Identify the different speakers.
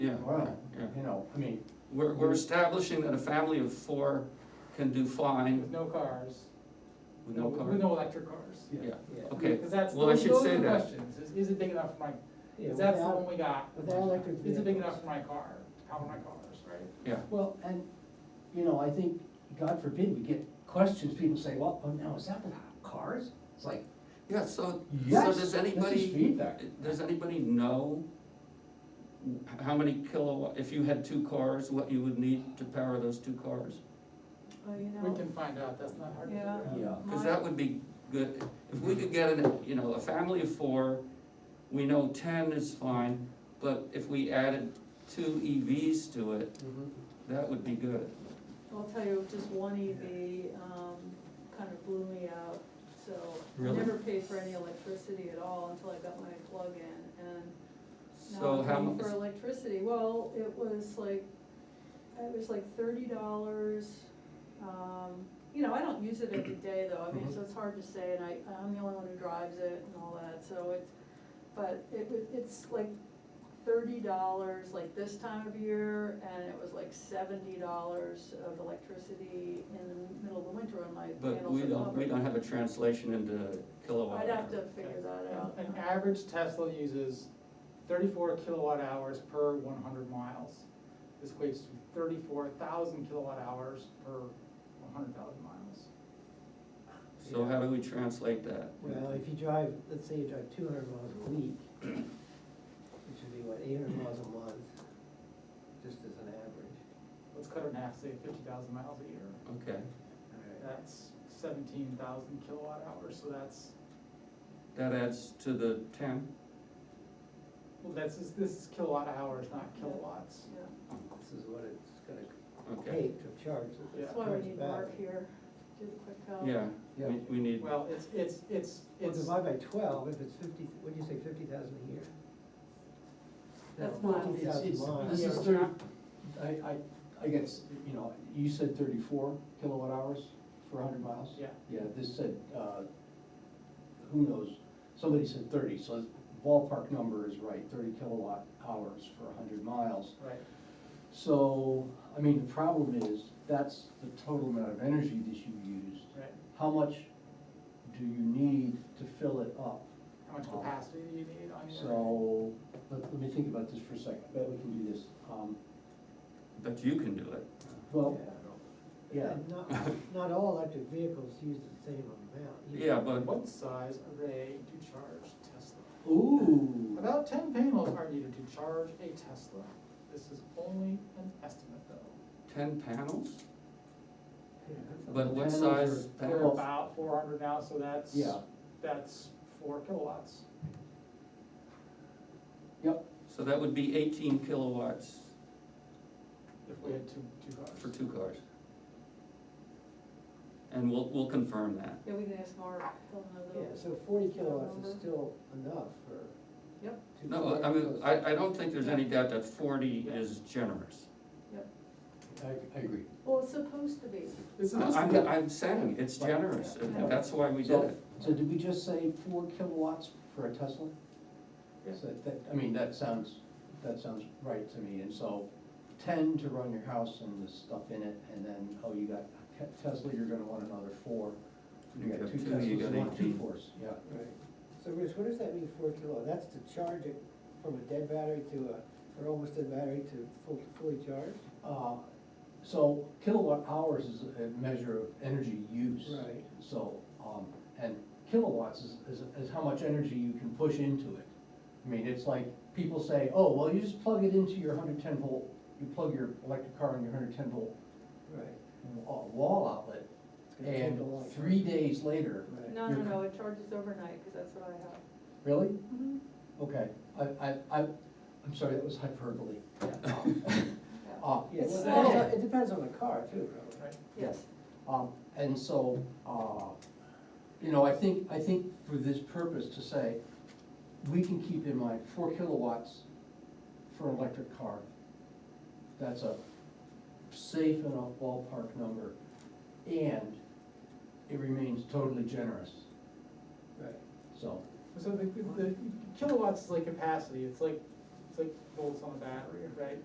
Speaker 1: Yeah.
Speaker 2: and run,
Speaker 1: Yeah.
Speaker 2: you know, I mean,
Speaker 1: We're, we're establishing that a family of four can do fine
Speaker 3: With no cars.
Speaker 1: with no
Speaker 3: With
Speaker 1: car.
Speaker 3: no electric cars.
Speaker 2: yeah.
Speaker 1: Yeah,
Speaker 4: Yeah.
Speaker 1: okay,
Speaker 3: Because that's,
Speaker 1: well, I
Speaker 3: those
Speaker 1: should
Speaker 3: those
Speaker 1: say
Speaker 3: are the
Speaker 1: that.
Speaker 3: questions, is, is it big enough for my,
Speaker 4: Yeah,
Speaker 3: because that's the
Speaker 4: without-
Speaker 3: one we got.
Speaker 4: without electric
Speaker 3: Is it big
Speaker 4: vehicles.
Speaker 3: enough for my car, power my cars, right?
Speaker 1: yeah,
Speaker 4: Well, and, you know, I think, God forbid, we get questions, people say, well, oh, now, is that without cars? It's like,
Speaker 1: yeah, so,
Speaker 4: yes,
Speaker 1: so
Speaker 4: this
Speaker 1: does
Speaker 4: is
Speaker 1: anybody,
Speaker 4: feedback.
Speaker 1: does anybody know how many kilowatt, if you had two cars, what you would need to power those two cars?
Speaker 5: Well, you
Speaker 3: We
Speaker 5: know,
Speaker 3: can find out, that's not hard to figure
Speaker 5: Yeah.
Speaker 3: out.
Speaker 4: Yeah,
Speaker 1: Because that would be good, if we could get, an, you know, a family of four, we know ten is fine, but if we added two EVs to it,
Speaker 4: Mm-hmm.
Speaker 1: that would be good.
Speaker 5: I'll tell you, just one EV, um, kind of blew me out, so. I
Speaker 1: Really?
Speaker 5: never paid for any electricity at all until I got my plug in, and
Speaker 1: So
Speaker 5: now
Speaker 1: how
Speaker 5: I'm paying
Speaker 1: much,
Speaker 5: for electricity, well, it was like, it was like thirty dollars. Um, you know, I don't use it every day though, I mean,
Speaker 1: Mm-hmm.
Speaker 5: so it's hard to say, and I, I'm the only one who drives it and all that, so it's, but it was, it's like thirty dollars like this time of year, and it was like seventy dollars of electricity in the middle of the winter when my
Speaker 1: but
Speaker 5: panels
Speaker 1: we
Speaker 5: are
Speaker 1: don't, we
Speaker 5: covered.
Speaker 1: don't have a translation into kilowatt.
Speaker 5: I'd have to
Speaker 1: hour.
Speaker 5: figure that out.
Speaker 3: An average Tesla uses thirty-four kilowatt hours per one hundred miles. This equates to thirty-four thousand kilowatt hours per one hundred thousand miles.
Speaker 1: So how do we translate that?
Speaker 4: well, if you drive, let's say you drive two hundred miles a week, which would be what, eight hundred miles a month, just as an average.
Speaker 3: Let's cut it in half, say fifty thousand miles a year.
Speaker 1: Okay,
Speaker 3: That's seventeen thousand kilowatt hours, so that's,
Speaker 1: that adds to the ten,
Speaker 3: well, that's, this is kilowatt hours, not kilowatts.
Speaker 5: Yeah.
Speaker 4: This is what it's gonna
Speaker 1: okay,
Speaker 4: take to charge. this
Speaker 3: Yeah.
Speaker 5: That's why we
Speaker 4: charge
Speaker 5: need
Speaker 4: back.
Speaker 5: Mark here, do the quick count.
Speaker 1: yeah,
Speaker 4: Yeah.
Speaker 1: we, we need,
Speaker 3: Well, it's, it's, it's,
Speaker 4: Well,
Speaker 3: it's,
Speaker 4: divide by twelve, if it's fifty, what'd you say, fifty thousand a year?
Speaker 5: That's
Speaker 4: No,
Speaker 5: miles.
Speaker 4: Fifty
Speaker 2: It's-
Speaker 4: thousand
Speaker 2: it's-
Speaker 4: miles.
Speaker 2: This is thirty, I, I, I guess, you know, you said thirty-four kilowatt hours for hundred miles?
Speaker 3: yeah,
Speaker 2: Yeah, this said, uh, who knows, somebody said thirty, so the ballpark number is right, thirty kilowatt hours for hundred miles.
Speaker 3: right.
Speaker 2: So, I mean, the problem is, that's the total amount of energy that you used.
Speaker 3: Right,
Speaker 2: How much do you need to fill it up?
Speaker 3: how much capacity do you need on your?
Speaker 2: So, let, let me think about this for a second, I bet we can do this. Um,
Speaker 1: but you can do it,
Speaker 2: Well, yeah,
Speaker 4: And not, not all electric vehicles use the same amount. either.
Speaker 1: yeah, but,
Speaker 3: What size array to charge Tesla?
Speaker 2: ooh.
Speaker 3: About ten panels are needed to charge a Tesla. This is only an estimate though.
Speaker 1: ten panels?
Speaker 4: Yeah, that's a
Speaker 1: But
Speaker 4: lot.
Speaker 1: what
Speaker 2: Panels
Speaker 1: size
Speaker 2: are-
Speaker 3: We're
Speaker 1: panels?
Speaker 3: about four hundred now, so that's,
Speaker 2: Yeah.
Speaker 3: that's four kilowatts.
Speaker 2: Yep,
Speaker 1: So that would be eighteen kilowatts
Speaker 3: If we had two, two cars.
Speaker 1: for two cars. And we'll, we'll confirm that.
Speaker 5: Yeah, we can ask Mark, he'll know
Speaker 4: Yeah,
Speaker 5: those.
Speaker 4: so forty kilowatts is
Speaker 5: Number.
Speaker 4: still enough for.
Speaker 5: Yep.
Speaker 4: two
Speaker 1: No, I mean,
Speaker 4: vehicles.
Speaker 1: I, I don't think there's any doubt that forty
Speaker 3: Yeah.
Speaker 1: is generous.
Speaker 2: I, I agree.
Speaker 5: Well, it's supposed to be,
Speaker 3: This is just-
Speaker 1: I'm, I'm saying, it's
Speaker 2: Right.
Speaker 1: generous,
Speaker 5: Yeah.
Speaker 1: and that's why we did
Speaker 2: So,
Speaker 1: it.
Speaker 2: so did we just say four kilowatts for a Tesla?
Speaker 3: Yeah.
Speaker 2: So that, I mean, that sounds, that sounds right to me, and so ten to run your house and the stuff in it, and then, oh, you got a Te- Tesla, you're gonna want another four. You got two
Speaker 1: Two, you
Speaker 2: Teslas,
Speaker 1: got
Speaker 2: you want two
Speaker 1: 18.
Speaker 2: fours, yeah.
Speaker 4: Right. So Rich, what does that mean, four kilowatt? That's to charge it from a dead battery to a, or almost dead battery to full, fully charged?
Speaker 2: Uh, So kilowatt hours is a measure of energy use.
Speaker 4: Right.
Speaker 2: So, um, and kilowatts is, is, is how much energy you can push into it. I mean, it's like, people say, oh, well, you just plug it into your hundred ten volt, you plug your electric car in your hundred ten volt
Speaker 4: Right.
Speaker 2: wa- wall outlet,
Speaker 4: It's gonna take
Speaker 2: and
Speaker 4: a long time.
Speaker 2: three days later,
Speaker 4: Right.
Speaker 5: no, no, no, it charges overnight, cause that's what I have.
Speaker 2: really?
Speaker 5: Mm-hmm.
Speaker 2: Okay, I, I, I, I'm sorry, that was hyperbole.
Speaker 5: Yeah,
Speaker 2: Uh,
Speaker 4: Yeah,
Speaker 5: It's
Speaker 4: well,
Speaker 5: slow.
Speaker 4: it depends- it depends on the car too, probably.
Speaker 3: Right.
Speaker 5: yes,
Speaker 2: Um, and so, uh, you know, I think, I think for this purpose to say, we can keep in mind four kilowatts for an electric car. That's a safe enough ballpark number, and it remains totally generous,
Speaker 4: Right.
Speaker 2: so.
Speaker 3: So the, the the kilowatts is like capacity, it's like, it's like volts on a battery, right?